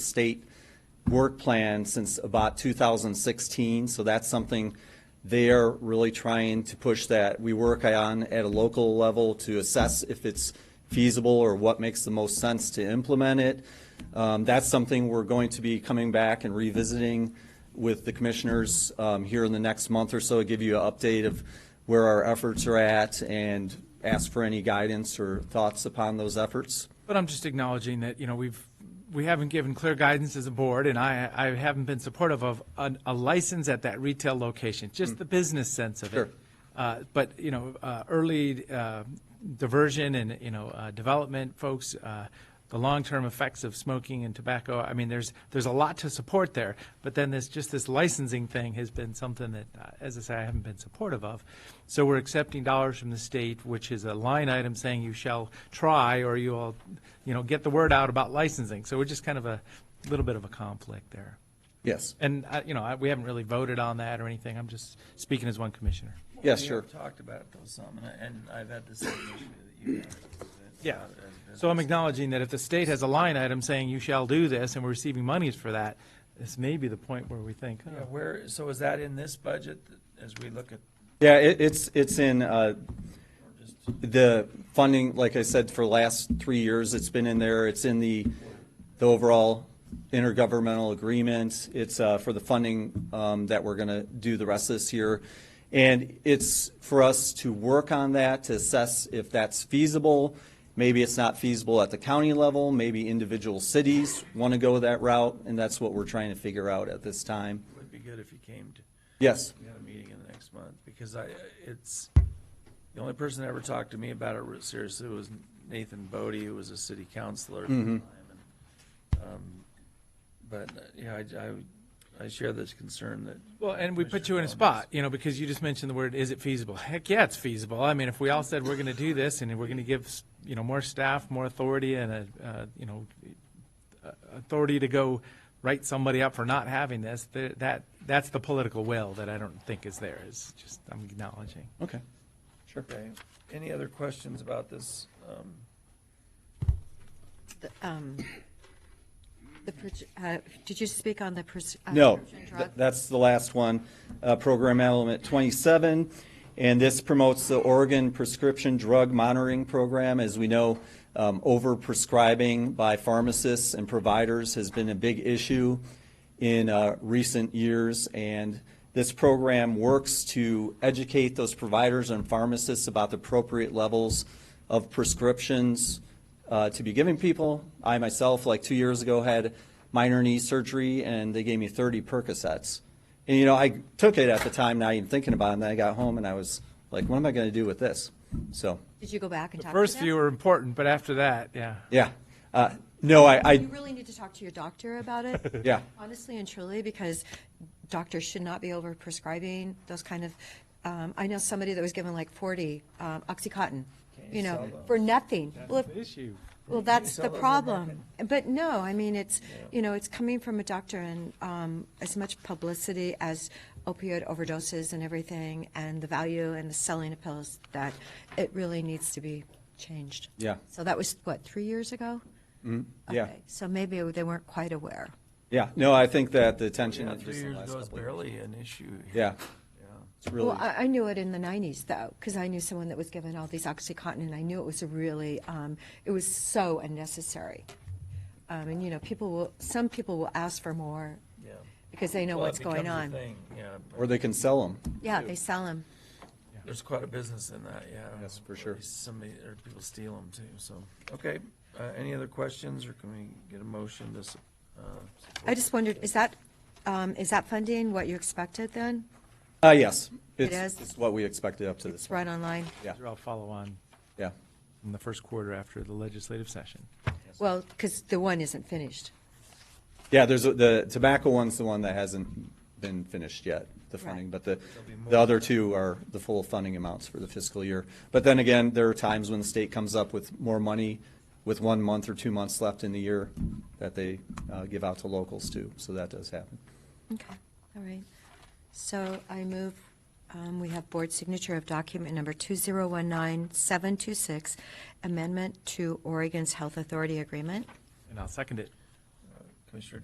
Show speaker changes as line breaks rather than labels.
state work plan since about 2016, so that's something they're really trying to push that we work on at a local level to assess if it's feasible or what makes the most sense to implement it. Um, That's something we're going to be coming back and revisiting with the commissioners um, here in the next month or so, give you an update of where our efforts are at and ask for any guidance or thoughts upon those efforts.
But I'm just acknowledging that, you know, we've, we haven't given clear guidance as a board, and I, I haven't been supportive of a, a license at that retail location, just the business sense of it.
Sure.
Uh, but, you know, uh, early, uh, diversion and, you know, uh, development folks, uh, the long-term effects of smoking and tobacco, I mean, there's, there's a lot to support there. But then this, just this licensing thing has been something that, uh, as I say, I haven't been supportive of. So we're accepting dollars from the state, which is a line item saying you shall try, or you'll, you know, get the word out about licensing. So we're just kind of a little bit of a conflict there.
Yes.
And, I- you know, I- we haven't really voted on that or anything. I'm just speaking as one commissioner.
Yes,
We
sure.
have talked about it though some, and I- and I've had the same issue that you have. It's
Yeah.
not as
So I'm
business.
acknowledging that if the state has a line item saying you shall do this, and we're receiving monies for that, this may be the point where we think,
Yeah,
oh,
Where, so is that in this budget that- as we look at,
Yeah, it, it's, it's in, uh,
or just,
the funding, like I said, for the last three years, it's been in there. It's in the, the overall intergovernmental agreement. It's, uh, for the funding, um, that we're gonna do the rest of this year. And it's for us to work on that, to assess if that's feasible. Maybe it's not feasible at the county level, maybe individual cities wanna go that route, and that's what we're trying to figure out at this time.
would be good if you came to,
Yes,
we had a meeting in the next month, because I, it's, the only person that ever talked to me about it seriously was Nathan Bodie, who was a city councilor at the
Mm-hmm.
time. and, um, But, uh, yeah, I, I, I share this concern that.
Well, and we put you in a
Commissioner
spot, you know, because you just mentioned the word, is it feasible? Heck, yeah, it's feasible. I mean, if we all said we're going to do this and we're going to give, you know, more staff, more authority and a, uh, you know, uh, authority to go write somebody up for not having this, th- that, that's the political will that I don't think is there. It's just, I'm acknowledging.
okay. Sure.
Okay, any other questions about this? Um,
The, um, the, pres- uh, did you speak on the pres- uh,
No,
prescription
th-
drug?
that's the last one, uh, Program Element 27. And this promotes the Oregon Prescription Drug Monitoring Program. As we know, um, overprescribing by pharmacists and providers has been a big issue in uh, recent years. And this program works to educate those providers and pharmacists about the appropriate levels of prescriptions uh, to be giving people. I myself, like two years ago, had minor knee surgery, and they gave me 30 Percocets. And you know, I took it at the time, not even thinking about it. And then I got home, and I was like, "What am I going to do with this?" So,
Did you go back and
The
talk to them?
first few are important, but after that, yeah.
yeah, uh, no, I, I,
You really need to talk to your doctor about it.
yeah,
Honestly and truly, because doctors should not be over prescribing those kind of, um, I know somebody that was given like forty, um, Oxycontin,
Can't
you
sell
know,
those.
for nothing. Well, if-
issue.
Well, that's
sell
the
those on the
problem. But no, I mean, it's, you know, it's coming from a doctor and um, as much publicity as opioid overdoses and everything and the value and the selling of pills that it really needs to be changed.
Yeah.
So that was, what, three years ago?
yeah,
Okay, So maybe they weren't quite aware.
yeah. No, I think that the attention
Yeah,
is
three
just in the
years
last
ago is
couple of years.
barely an issue. here.
Yeah,
Yeah.
it's really.
Well, I, I knew it in the 90s though, because I knew someone that was given all these OxyContin and I knew it was a really, um, it was so unnecessary. Um, And, you know, people will, some people will ask for more
Yeah.
because they know
Well, it
what's going
becomes a
on.
thing, Yeah,
or they can sell them.
Yeah, they sell them.
there's quite a business in that, yeah.
Yes, for
At
sure.
least Somebody, or people steal them too, so, okay. Uh, any other questions, or can we get a motion to, s- uh?
I just wondered, is that, um, is that funding what you expected then?
Uh, yes,
It
it's,
is?
it's what we expected up to this
It's
point.
right online.
Yeah.
I'll follow on
Yeah,
in the first quarter after the legislative session.
Well, because the one isn't finished.
yeah. There's a, the tobacco one's the one that hasn't been finished yet, the
Right.
funding, but the
be
the
more.
other two are the full funding amounts for the fiscal year. But then again, there are times when the state comes up with more money with one month or two months left in the year that they uh, give out to locals too. So that does happen.
Okay, all right. So I move, um, we have board signature of document number 2019726, amendment to Oregon's Health Authority Agreement.
And I'll second it.
uh, Commissioner